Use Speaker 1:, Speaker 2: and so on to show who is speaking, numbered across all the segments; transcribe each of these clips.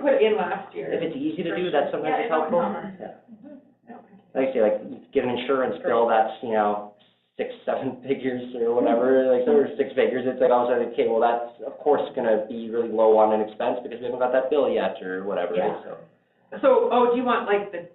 Speaker 1: put in last year.
Speaker 2: If it's easy to do, that's sometimes
Speaker 1: Yeah,
Speaker 2: it's helpful.
Speaker 1: it's a
Speaker 2: Yeah.
Speaker 1: Okay.
Speaker 2: Like I say, like, you get an insurance bill that's, you know, six, seven figures or whatever, like, or six figures, it's like, all of a sudden, okay, well, that's, of course, gonna be really low on an expense because we haven't got that bill yet or whatever,
Speaker 1: Yeah.
Speaker 2: so.
Speaker 1: So, oh, do you want like the,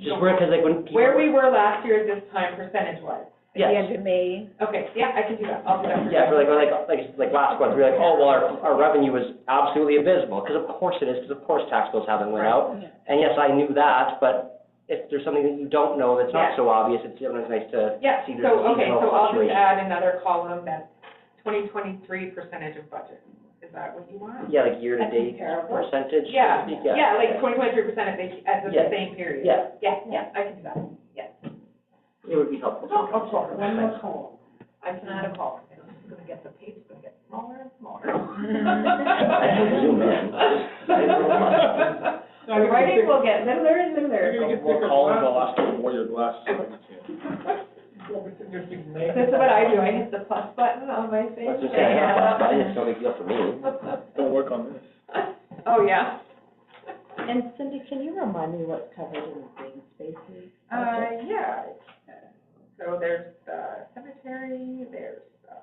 Speaker 2: Just where, cause like when people.
Speaker 1: where we were last year at this time percentage wise?
Speaker 3: At the
Speaker 2: Yes.
Speaker 3: end of May.
Speaker 1: Okay, yeah, I can do that, I'll do that. for
Speaker 2: Yeah,
Speaker 1: you.
Speaker 2: for like, like, like, like last month, we were like, oh, well, our, our revenue was absolutely abysmal, because of course it is, because of course tax bills haven't went
Speaker 1: Right.
Speaker 2: out. And yes, I knew that, but if there's something that you don't know that's not
Speaker 1: Yeah.
Speaker 2: so obvious, it's sometimes nice to
Speaker 1: Yeah,
Speaker 2: see the
Speaker 1: so, okay,
Speaker 2: seasonal
Speaker 1: so I'll just
Speaker 2: fluctuation.
Speaker 1: add another column that's twenty twenty-three percentage of budget. Is that what you want?
Speaker 2: Yeah, like year-to-date
Speaker 1: comparable.
Speaker 2: percentage. so to
Speaker 1: Yeah,
Speaker 2: speak,
Speaker 1: yeah, like twenty twenty-three percent at the, at the
Speaker 2: Yeah.
Speaker 1: same period.
Speaker 2: Yeah.
Speaker 1: Yeah, yeah, I can do that.
Speaker 2: It would be helpful.
Speaker 1: Of course. Oh, One more column. I can add a column, and it's gonna get, the page is gonna get smaller and smaller.
Speaker 2: I can zoom in.
Speaker 1: The writing will get littler and littler.
Speaker 4: We're gonna get thicker glasses, I'll wear your glasses.
Speaker 1: This is what I do, I hit the plus button on my face.
Speaker 2: That's what I'm saying, I don't have that button, it's no big deal for me.
Speaker 4: Don't work on this.
Speaker 1: Oh, yeah.
Speaker 3: And Cindy, can you remind me what's covered in the green spaces?
Speaker 1: Uh, yeah. So there's the cemetery, there's, uh,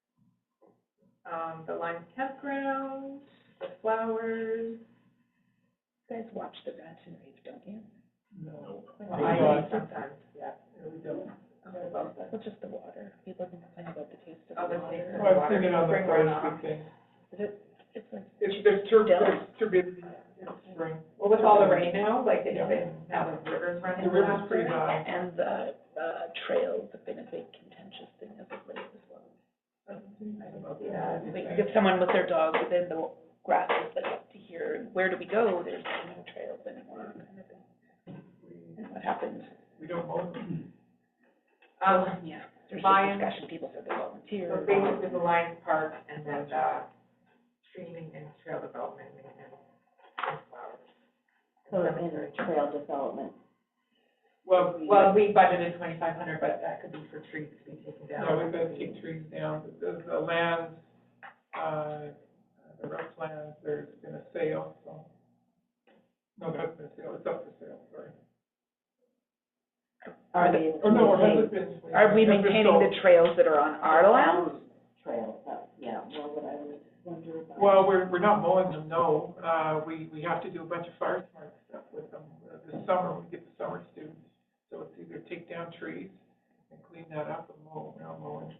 Speaker 1: where am I? Um, the Lime Campground, the flowers.
Speaker 3: You guys watch the Rats and Raves, don't you?
Speaker 1: Well, I do sometimes, yeah. No, we don't.
Speaker 3: Well, just the water. People can complain about the taste of
Speaker 1: Oh,
Speaker 3: the
Speaker 1: the
Speaker 3: water.
Speaker 1: taste of the
Speaker 4: I was thinking on the
Speaker 1: Bring one
Speaker 4: Thursday
Speaker 1: off.
Speaker 4: thing.
Speaker 3: It's like,
Speaker 4: It's, there's two,
Speaker 3: Dell.
Speaker 4: there's two bits in spring.
Speaker 1: Well, with all the rain now, like, it's been, now the river's running.
Speaker 4: The river's
Speaker 1: faster.
Speaker 4: pretty high.
Speaker 3: and the, uh, trails have been a big contentious thing as of late as well. Oh, Um,
Speaker 1: Yeah.
Speaker 3: Like, if someone with their dog within the grasses, but up to here, where do we go? There's no trails anymore, kind of thing. And what happened?
Speaker 4: We don't mow them.
Speaker 1: Um,
Speaker 3: Yeah, there's
Speaker 1: Lions.
Speaker 3: a discussion, people said they volunteer.
Speaker 1: so basically the Lions Park and then, uh, streaming and trail development maintenance and flowers.
Speaker 5: So
Speaker 1: And
Speaker 5: in
Speaker 1: cemetery.
Speaker 5: trail development,
Speaker 4: Well, we,
Speaker 1: Well, we budgeted twenty-five hundred, but that could be for trees to be taken
Speaker 4: yeah,
Speaker 1: down.
Speaker 4: we've got to take trees down, the, the land, uh, the rough land, there's been a sale, so. No, that's been a sale, it's up for sale, sorry.
Speaker 5: are they?
Speaker 4: Oh, no, it hasn't been.
Speaker 3: Are we
Speaker 4: It's been
Speaker 3: maintaining
Speaker 4: sold.
Speaker 3: the trails that are on our land?
Speaker 5: Trails, that, yeah, well, what I would wonder about.
Speaker 4: Well, we're, we're not mowing them, no. Uh, we, we have to do a bunch of fire smart stuff with them. Uh, This summer, we get the summer students, so it's either take down trees and clean that up and mow, now mowing.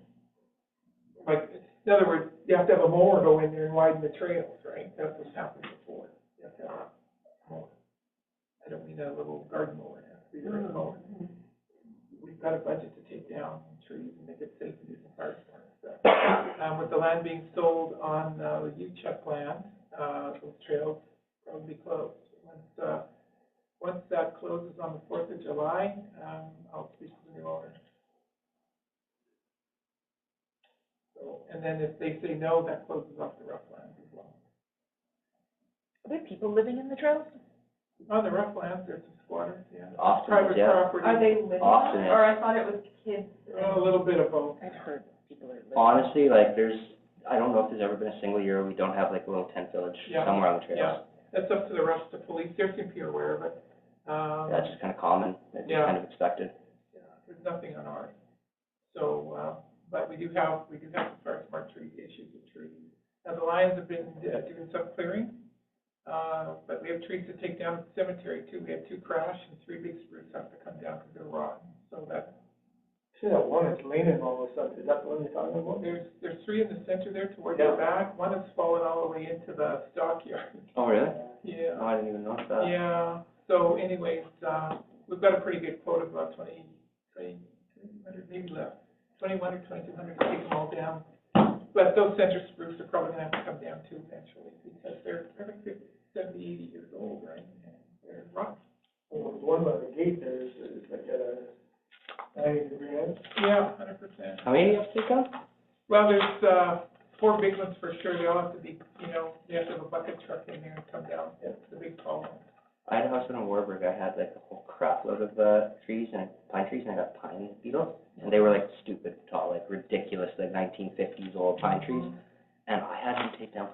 Speaker 4: Like, in other words, you have to have a mower go in there and widen the trails, right? That's what's happened before. You have to have a mower. I don't mean a little garden mower, it has to be a real mower. We've got a budget to take down trees and make it safe to do some fire smart stuff um, with the land being sold on, uh, the Uchuck land, uh, those trails probably be closed. Once, uh, once that closes on the fourth of July, um, I'll speak to the new owner. So, and then if they say no, that closes off the rough lands as well.
Speaker 3: Are there people living in the trails?
Speaker 4: On Oh, the rough lands, there's some squatters, yeah.
Speaker 2: Often,
Speaker 4: Private
Speaker 2: yeah,
Speaker 4: property.
Speaker 1: Are they living on
Speaker 2: Often.
Speaker 1: it, or I thought it was kids?
Speaker 4: A little bit of both.
Speaker 3: I've heard people are living.
Speaker 2: honestly, like, there's, I don't know if there's ever been a single year we don't have like a little tent village
Speaker 4: Yeah.
Speaker 2: somewhere on the trails.
Speaker 4: Yeah. That's up to the rest of the police, they seem to be aware of it. Um,
Speaker 2: That's just kinda common, it's just
Speaker 4: Yeah.
Speaker 2: kind of expected.
Speaker 4: Yeah, there's nothing on ours. So, uh, but we do have, we do have some very smart tree issues with trees. Now, the Lions have been uh, doing some clearing, uh, but we have trees to take down at the cemetery too. We have two crash and three big spruce have to come down because they're rotten, so that.
Speaker 6: See that one that's leaning all of a sudden, is that the one you're talking about?
Speaker 4: There's, there's three in the center there toward the
Speaker 6: Yeah.
Speaker 4: back. One has fallen all the way into the stockyard.
Speaker 2: Oh, really?
Speaker 4: Yeah.
Speaker 2: Oh, I didn't even notice that.
Speaker 4: Yeah, so anyways, uh, we've got a pretty good quote of about twenty, twenty, hundred, maybe less, twenty-one or twenty-two hundred to take them all down. But those center spruce are probably gonna have to come down too eventually, because they're, they're like fifty, seventy, eighty years old, right? And They're rough.
Speaker 6: Well, the one by the gate there is, is like at a ninety degree angle.
Speaker 4: Yeah, hundred percent.
Speaker 2: How many do you have to take down?
Speaker 4: Well, there's, uh, four big ones for sure, they all have to be, you know, they have to have a bucket truck in there and come down, it's the big tall ones.
Speaker 2: I had a house in Warburg, I had like a whole crapload of, uh, trees and pine trees, and I got pine beetles, and they were
Speaker 4: Mm.
Speaker 2: like stupid tall, like ridiculous, like nineteen fifties old pine trees, and I had to take down